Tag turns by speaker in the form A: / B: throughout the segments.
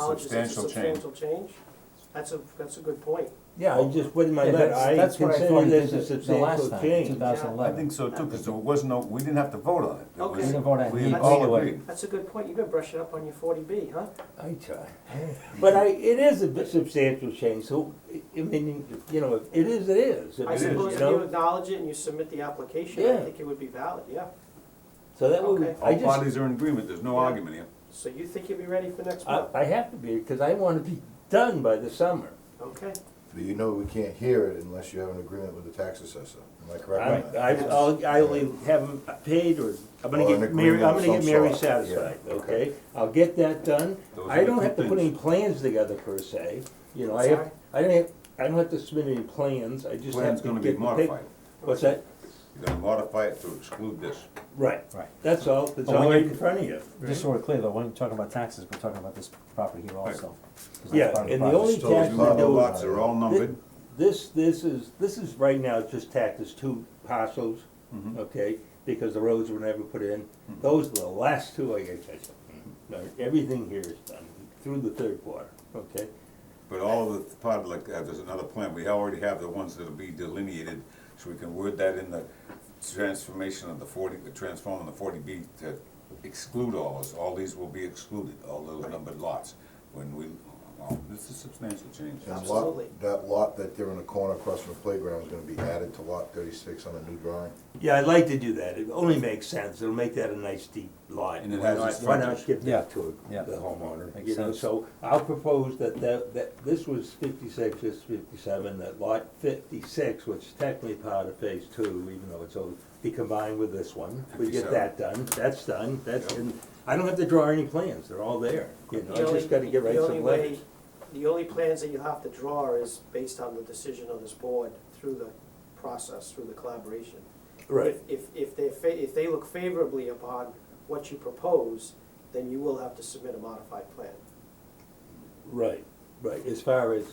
A: acknowledges it's a
B: substantial change.
A: substantial change, that's a, that's a good point.
C: Yeah, I just put in my
D: Yeah,
C: letter,
D: that's-
C: I
D: that's what I thought
C: consider
D: you
C: this a
D: did the- the last
C: substantial
D: time,
C: change.
D: 2011.
B: I think so too, because there was no, we didn't have to vote on it. There
A: Okay.
D: We
B: was-
D: didn't vote on it.
B: We
A: That's-
B: all agreed.
A: That's a good point, you've been brushing up on your forty B, huh?
C: I try. But I, it is a bit substantial change, so, I mean, you know, it is, it is. If
A: I
C: it is,
A: suppose
C: you
A: if
C: know?
A: you acknowledge it and you submit the application, I
C: Yeah.
A: think it would be valid, yeah.
C: So that would,
A: Okay.
C: I
B: All
C: just,
B: parties are in agreement, there's no
A: Yeah.
B: argument here.
A: So you think you'll be ready for next
C: I,
A: month?
C: I have to be, because I want to be done by the summer.
A: Okay,
E: But you know we can't hear it unless you have an agreement with the tax assessor, am I
C: I,
E: correct on that?
C: I, I'll, I'll either have them paid or, I'm gonna
E: Or an
C: get Mary, I'm
E: agreement of
C: gonna get
E: some
C: Mary
E: sort, yeah,
C: satisfied,
E: okay.
C: okay? I'll get that done.
B: Those are
C: I
B: the
C: don't
B: two
C: have to put any
B: things.
C: plans together per se, you know, I
A: Sorry?
C: have, I don't have, I don't have to submit any plans, I just have
B: Plan's
C: to
B: gonna
C: get
B: be
C: the pic-
B: modified.
C: What's that?
B: You're gonna modify it to exclude this.
C: Right,
D: Right.
C: that's all, that's
D: But when
C: all right
D: you-
C: in front of you.
D: Just so we're clear though, when you're talking about taxes, we're talking about this property here also. 'cause that's
C: Yeah,
D: part of
C: and the
D: project.
C: only
E: Still,
C: tax
B: These
E: we're
C: window.
B: lot-
E: doing-
B: lots are all numbered.
C: This, this is, this is right now just tacked as two parcels, okay, because the roads were never put in. Those were the last two I got catch up. Now, everything here is done through the third quarter, okay?
B: But all of the part, like, uh, there's another plan, we already have the ones that'll be delineated, so we can word that in the transformation of the forty, the transform of the forty B to exclude all this, all these will be excluded, all those numbered lots, when we, well, this is substantial change.
E: And lot-
A: Absolutely.
E: That lot that they're in the corner across from the playground is gonna be added to lot thirty-six on a new drawing?
C: Yeah, I'd like to do that, it only makes sense, it'll make that a nice deep lot.
B: And it
C: Why
B: has
C: not-
B: its
C: Why not
B: frontage.
C: give
D: Yeah,
C: that to
D: yeah.
C: the homeowner,
D: Makes
C: you know,
D: sense.
C: so I'll propose that, that, that, this was fifty-six, this fifty-seven, that lot fifty-six, which is technically part of phase two, even though it's over, be combined with this one, we get
B: 57.
C: that done, that's done, that's,
B: Yep.
C: and I don't have to draw any plans, they're all there, you know,
A: The
C: I
A: only-
C: just gotta get right
A: the only
C: some letters.
A: way- The only plans that you have to draw is based on the decision of this board through the process, through the collaboration.
C: Right,
A: If- If, if they, fa- if they look favorably upon what you propose, then you will have to submit a modified plan.
C: right, right, as far as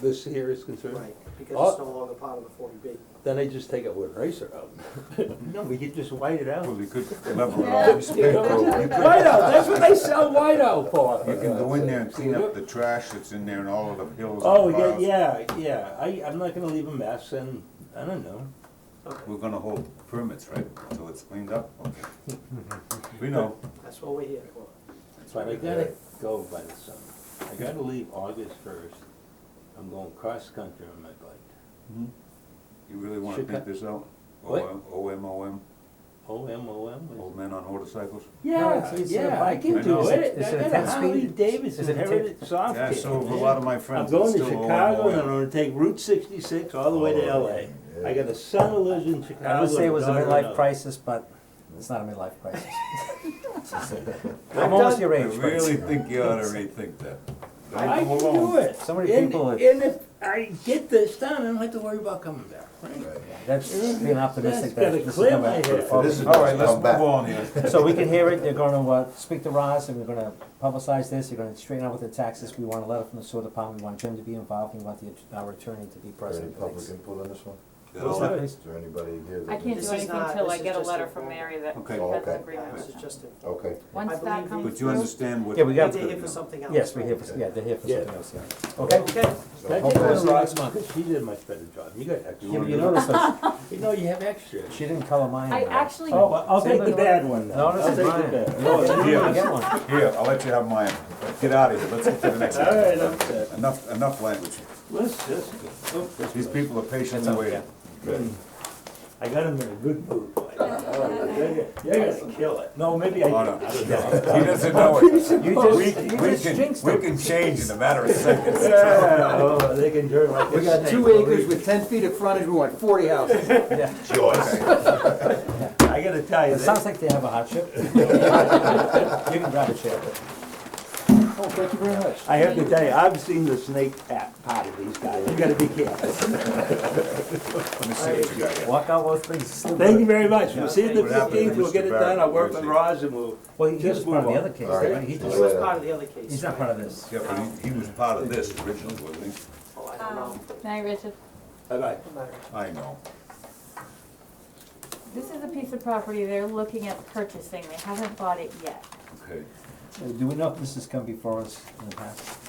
C: this here is concerned.
A: Right,
D: Oh.
A: because it's no longer part of the forty B.
C: Then I just take a wood eraser out. No, we could just white it out.
B: Well, we could level it all, you
C: White out, that's what they sell white out for.
B: can go in there and clean up the trash that's in there and all of the hills
C: Oh,
B: and
C: yeah,
B: piles.
C: yeah, yeah, I, I'm not gonna leave a mess and, I don't know.
A: Okay,
B: We're gonna hold permits, right, until it's cleaned up, okay. We know.
A: that's what we're here for.
C: But I gotta go by the summer. I gotta leave August first. I'm going cross-country on my bike.
B: You really wanna
C: Mm-hmm. Should
B: think
C: cut-
B: this out?
C: What?
B: OM, OMOM,
C: O M O M. what is
B: old
C: it?
B: men on motorcycles?
D: No,
C: Yeah,
D: it's- it's a
C: yeah, I
D: bike.
C: can
B: I know.
C: do
B: Is
D: it-
C: it.
D: is
C: I
D: it a
C: got a
D: 10 speed?
C: Harley
D: Is
C: Davidson
D: it a 10
C: Heritage soft
B: Yeah, so have a lot of my friends.
C: I'm going to
B: It's still
C: Chicago and I'm
B: OMOM.
C: gonna take Route sixty-six all the way to
E: Oh,
C: LA.
E: yeah.
C: I got a son who lives in Chicago.
D: I would say it was a
C: and a daughter in
D: midlife
C: LA.
D: crisis, but it's not a midlife crisis.
A: I've
D: I'm almost
A: done-
D: your
B: I
D: age,
B: really
D: Fritz.
B: think you ought to rethink that.
C: I
B: Don't
C: can
B: go along.
C: do it.
D: So many
C: And-
D: people-
C: And if I get this done, I don't have to worry about coming back.
E: Right.
D: That's being
C: That's
D: optimistic. that
C: gotta
D: this is
C: clear
D: gonna-
C: my head.
E: If this is
B: All right,
E: done,
B: let's
E: come
B: move
E: back.
B: on here.
D: So we can hear it, you're gonna, uh, speak to Roz, and we're gonna publicize this, you're gonna straighten out with the taxes, we want a letter from the sewer department, we want Jim to be involved, we want the, our attorney to be
E: Is there any
D: present.
E: public input on this one?
B: That'll-
D: that?
E: Is there anybody here? that-
F: I can't
A: This is
F: do anything
A: not-
F: until
A: this
F: I
A: is
F: get a
A: just
F: letter
A: a
F: from
A: formal.
F: Mary that
B: Okay.
F: has
E: Oh, okay.
F: an
A: Yeah,
F: agreement
A: This is
F: with them.
A: just a,
E: Okay,
A: I
F: Once
A: believe
F: that comes through.
B: But you understand what.
D: Yeah, we got-
A: they're here for something else.
D: Yes, we're here
A: right?
D: for, yeah, they're here for
C: Yeah.
D: something else, yeah. Okay?
A: Okay,
E: so
C: Can I
E: hopefully-
C: take one
D: Hopefully
C: of
D: next
C: Rod's,
D: month.
C: because she did a much better job, you got extra.
D: You,
B: wanna
D: you
B: do
D: notice, that
C: You know, you have extra.
D: she didn't color mine.
F: I
D: uh,
F: actually,
C: Oh, well, I'll
D: See,
C: take
D: look,
C: the
D: look.
C: bad one then.
D: No, this
C: I'll
D: is
C: take the
D: mine.
C: bad.
D: No, you
B: Yeah.
D: get one.
B: Here, I'll let you have mine. Get out of here, let's get to the next
C: All right,
B: one.
C: I'm set.
B: Enough, enough language.
C: Let's just, oh, this
B: These
C: was-
B: people are patiently
D: That's okay.
B: waiting.
C: I got him in a good mood. like, You're you're gonna kill it. No, maybe I
B: Oh,
C: didn't.
B: no.
C: I don't know.
B: He doesn't know it.
D: You
B: We
D: just, you
B: can, we
D: just jinxed
B: can,
D: it.
B: we can change in a matter of seconds.
C: Yeah, oh, they can turn like a
G: We got
C: snake,
G: two
C: believe
G: acres
C: me.
G: with ten feet of frontage, we want forty houses.
B: Joyce.
C: I gotta tell you,
D: It sounds
C: that,
D: like they have a hardship. You can grab a chair.
G: Oh, thank you very much.
C: I have to tell you, I've seen the snake at, part of these guys, you gotta be careful.
B: Let me see what you got here.
D: Walk out with things.
C: Thank you very much, we'll see you the
B: What happened to
C: fifteenth, we'll
B: Mr.
C: get it
B: Barrett?
C: done, I'll work
B: Where is
C: with
B: he?
C: Roz and we'll,
D: Well, he
C: Just
D: was part of
C: move
D: the
C: on.
D: other case,
E: All right.
D: right? He
A: he
D: just,
A: was part of the other case.
D: he's not part of this.
B: Yeah, but he, he was part of this originally, wasn't he?
A: Oh, I don't know.
F: Um, Mary Richard,
C: bye-bye.
B: I know.
F: this is a piece of property they're looking at purchasing, they haven't bought it yet.
B: Okay.
D: Do we know if this has come before us in the past?